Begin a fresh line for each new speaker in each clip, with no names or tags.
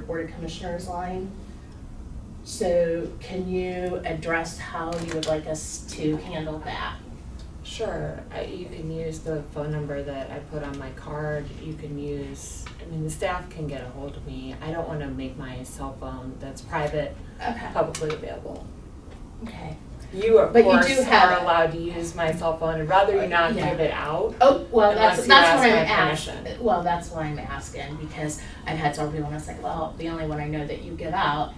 Board of Commissioners line. So can you address how you would like us to handle that?
Sure, I, you can use the phone number that I put on my card, you can use, I mean, the staff can get a hold of me. I don't wanna make my cell phone that's private
Okay.
publicly available.
Okay.
You of
But you
course
do have
are
it.
allowed to use my cell phone, I'd rather you not
Yeah.
give it out.
Oh, well, that's,
Unless you
that's what I'm
ask my
asking, well, that's why I'm asking, because I've had several people, and it's like, well, the only one I know that you give out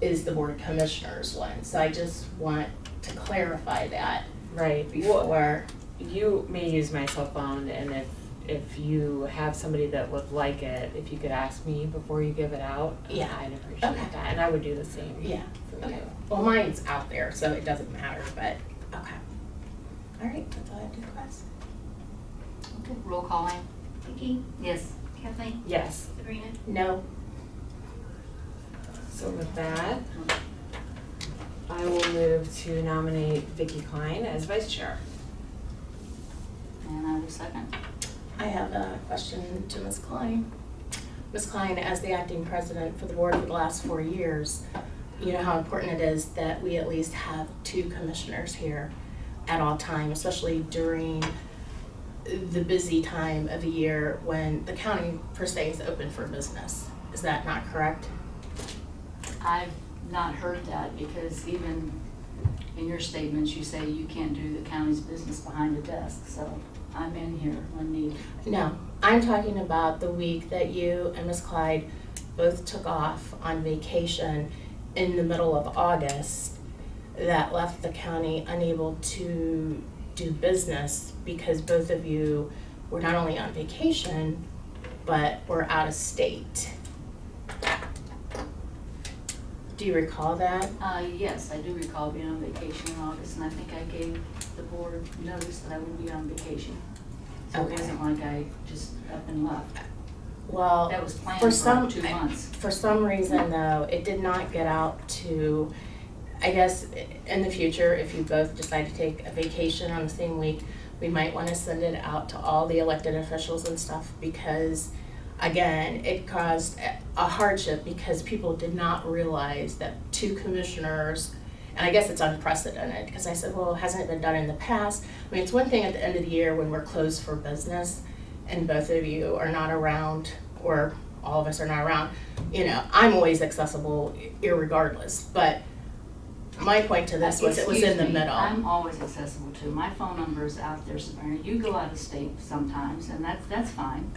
is the Board of Commissioners one, so I just want to clarify that
Right. Well,
before.
you may use my cell phone and if, if you have somebody that would like it, if you could ask me before you give it out,
Yeah.
I'd
Okay.
appreciate that, and I would do the same for you.
Yeah, okay. Well, mine's out there, so it doesn't matter, but, okay. All right, that's all I have to request.
Roll calling.
Vicky,
Yes.
Kathleen,
Yes.
Sabrina,
No,
So with that, I will move to nominate Vicky Klein as vice chair.
And I will second.
I have a question to Ms. Klein. Ms. Klein, as the acting president for the board for the last four years, you know how important it is that we at least have two commissioners here at all time, especially during the busy time of the year when the county per se is open for business. Is that not correct?
I've not heard that because even in your statements, you say you can't do the county's business behind the desk, so I'm in here when needed.
No, I'm talking about the week that you and Miss Clyde both took off on vacation in the middle of August that left the county unable to do business because both of you were not only on vacation, but were out of state. Do you recall that?
Uh, yes, I do recall being on vacation in August, and I think I gave the board notice that I would be on vacation. So it
Okay.
wasn't like I just up and left.
Well,
That was planned
For some-
for two months.
for some reason though, it did not get out to, I guess, in the future, if you both decide to take a vacation on the same week, we might wanna send it out to all the elected officials and stuff because, again, it caused a- a hardship because people did not realize that two commissioners, and I guess it's unprecedented, because I said, well, hasn't it been done in the past? I mean, it's one thing at the end of the year when we're closed for business and both of you are not around or all of us are not around, you know, I'm always accessible irregardless, but my point to this was it was in the
Excuse me,
middle.
I'm always accessible too. My phone number is out there, Sabrina. You go out of state sometimes, and that's, that's fine.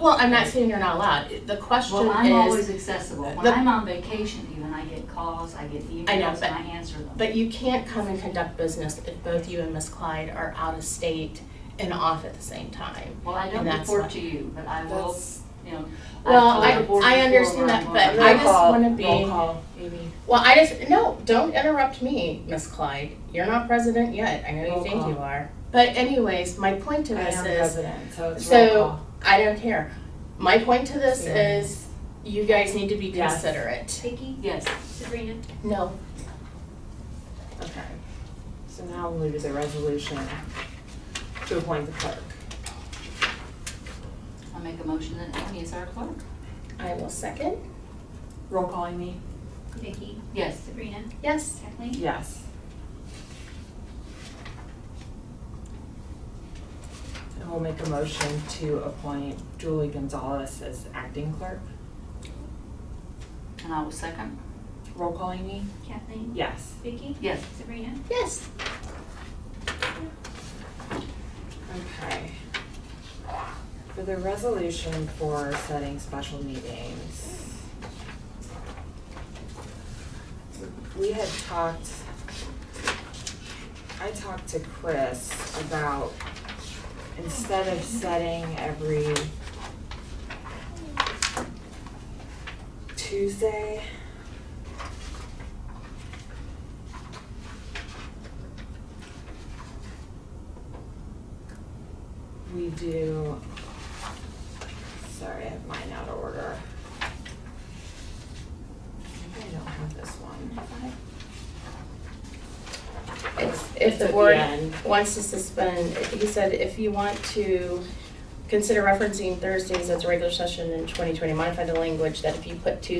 Well, I'm not saying you're not allowed. The question
Well, I'm
is,
always accessible. When
the-
I'm on vacation even, I get calls, I get emails,
I know,
and
but-
I answer them.
but you can't come and conduct business if both you and Miss Clyde are out of state and off at the same time.
Well, I don't
and that's
report
what-
to you, but I will,
That's-
you know. I've
Well,
told
I-
the board
I
before
understand
where
that,
I'm
but
going.
I just wanna be-
Roll call, Amy.
Well, I just, no, don't interrupt me, Miss Clyde. You're not president yet. I know you
Roll
think
call.
you are. But anyways, my point to
I
this
am
is,
president, so it's roll
So-
call.
I don't care. My point to this
Yeah.
is, you guys need to be
Yes.
considerate.
Vicky,
Yes,
Sabrina,
No,
Okay. So now we'll move to the resolution to appoint the clerk.
I make a motion that Amy is our clerk.
I will second.
Roll call, Amy?
Vicky,
Yes.
Sabrina,
Yes.
Kathleen,
Yes. And we'll make a motion to appoint Julie Gonzalez as acting clerk.
And I will second.
Roll call, Amy?
Kathleen,
Yes.
Vicky,
Yes.
Sabrina,
Yes.
Okay. For the resolution for setting special meetings. We had talked, I talked to Chris about instead of setting every Tuesday, we do, sorry, I have mine out of order. Maybe I don't have this one.
If,
It's
if the
at
board
end.
wants to suspend, he said if you want to consider referencing Thursdays as a regular session in twenty twenty, modify the language that if you put two